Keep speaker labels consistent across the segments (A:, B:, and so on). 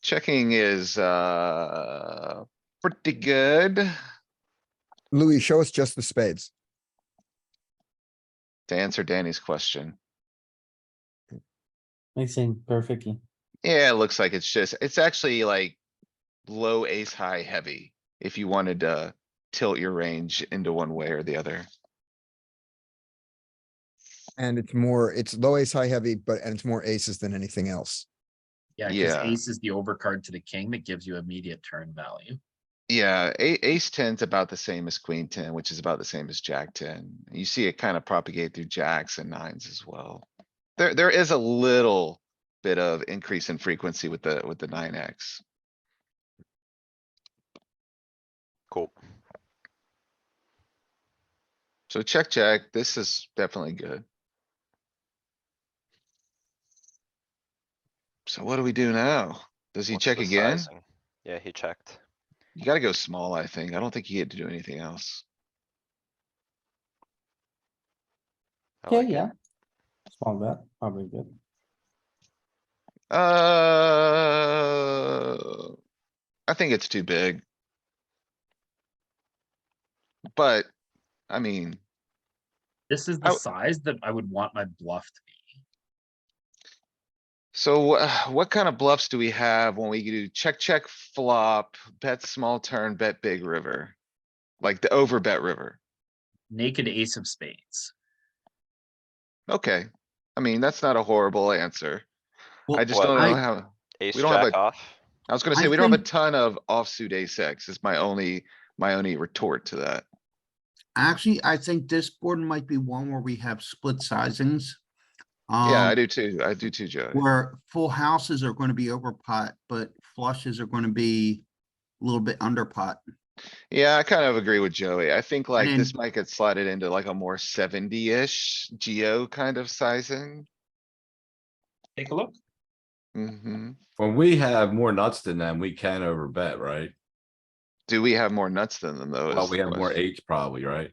A: Checking is, uh, pretty good.
B: Louis, show us just the spades.
A: To answer Danny's question.
C: mixing perfectly.
A: Yeah, it looks like it's just, it's actually like low ace, high, heavy. If you wanted to tilt your range into one way or the other.
B: And it's more, it's low ace, high heavy, but, and it's more aces than anything else.
D: Yeah,
A: Yeah.
D: because ace is the overcard to the king that gives you immediate turn value.
A: Yeah, a- ace ten's about the same as queen ten, which is about the same as jack ten. You see it kind of propagate through jacks and nines as well. There, there is a little bit of increase in frequency with the, with the nine X.
E: Cool.
A: So check, check. This is definitely good. So what do we do now? Does he
E: What's
A: check
E: the
A: again?
E: sizing? Yeah, he checked.
A: You gotta go small, I think. I don't think he had to do anything else.
E: I
C: Yeah,
E: like it.
C: yeah. Small bet, probably good.
A: Uh. I think it's too big. But, I mean,
D: This is
A: I
D: the
A: w-
D: size that I would want my bluff to be.
A: so wha- what kind of bluffs do we have when we do check, check, flop, bet small turn, bet big river? Like the over bet river.
D: Naked ace of spades.
A: Okay, I mean, that's not a horrible answer. I
D: Well,
A: just
E: What?
A: don't know
D: I-
A: how,
E: Ace
A: We don't have
E: jack
A: a-
E: off.
A: I was gonna
D: I
A: say, we don't have a
D: think-
A: ton of offsuit ace X is my only, my only retort to that.
F: Actually, I think this board might be one where we have split sizings.
A: Yeah, I
F: um,
A: do too. I do too, Joey.
F: Where full houses are gonna be over pot, but flushes are gonna be a little bit under pot.
A: Yeah, I kind of agree with Joey. I think like
F: mean-
A: this might get slotted into like a more seventy-ish geo kind of sizing.
D: Take a look.
A: hmm
G: When we have more nuts than them, we can overbet, right?
A: Do we have more nuts than them though?
G: Well,
A: is
G: we
A: Oh, the
G: have more
A: question.
G: eights probably, right?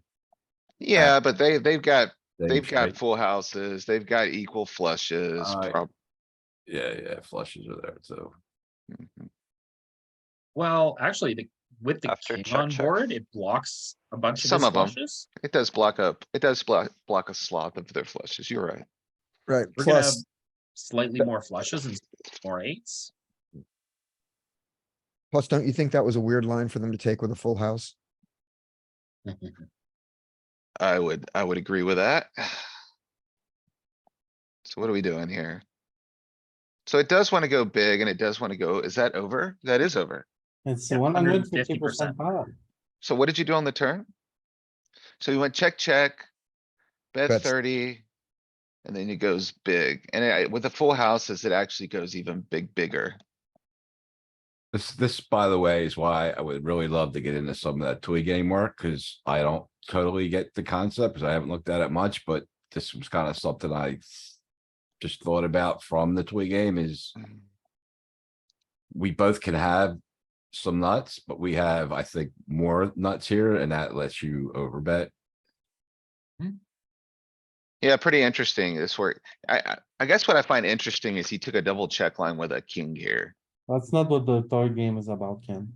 A: Yeah, but they, they've got, they've
G: Eights,
A: got
G: right?
A: full houses. They've got equal flushes.
G: Uh,
A: prob-
G: Yeah, yeah, flushes are there, so.
A: Mhm.
D: Well, actually, the, with the
E: After
D: king
E: check,
D: on
E: check.
D: board, it blocks a bunch of
A: Some
D: his
A: of 'em.
D: flushes.
A: It does block up, it does block, block a sloth of their flushes. You're right.
B: Right,
D: We're gonna have
B: plus,
D: slightly more flushes and more eights.
B: plus, don't you think that was a weird line for them to take with a full house?
D: Uh,
A: I would, I would agree with that. So what are we doing here? So it does wanna go big and it does wanna go, is that over? That is over.
C: It's
D: Yeah,
C: one hundred fifty
D: 150%.
C: percent power.
A: So what did you do on the turn? So you went check, check. Bet
B: Bets.
A: thirty. And then it goes big. And I, with the full houses, it actually goes even big, bigger.
G: This, this, by the way, is why I would really love to get into some of that toy game work, cuz I don't totally get the concept, cuz I haven't looked at it much, but this was kinda something I s- just thought about from the toy game is
A: Mm.
G: we both can have some nuts, but we have, I think, more nuts here and that lets you overbet.
A: Yeah, pretty interesting this work. I, I, I guess what I find interesting is he took a double check line with a king here.
C: That's not what the toy game is about, Ken.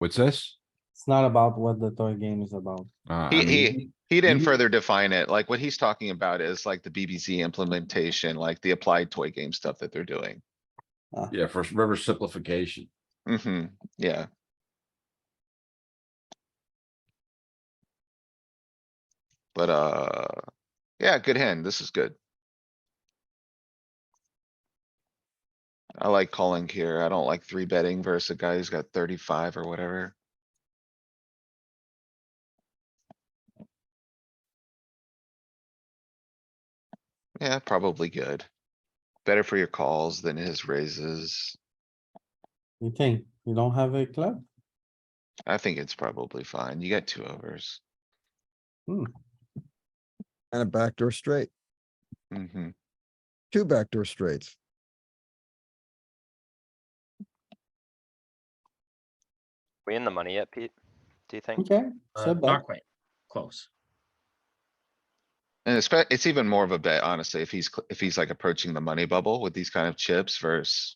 G: What's this?
C: It's not about what the toy game is about.
G: Uh, I
A: He,
G: mean-
A: he, he didn't
G: you-
A: further define it. Like what he's talking about is like the BBZ implementation, like the applied toy game stuff that they're doing.
G: Yeah, for river simplification.
A: Mm-hmm, yeah. But, uh, yeah, good hand. This is good. I like calling here. I don't like three betting versus a guy who's got thirty-five or whatever. Yeah, probably good. Better for your calls than his raises.
C: You think, you don't have a club?
A: I think it's probably fine. You got two overs.
B: And a backdoor straight,
A: hmm
B: two backdoor straights.
E: We in the money yet, Pete? Do you think?
C: Okay,
D: Uh,
C: so
D: Not
C: bet,
D: quite, close.
A: And it's, it's even more of a bet, honestly, if he's, cl- if he's like approaching the money bubble with these kind of chips versus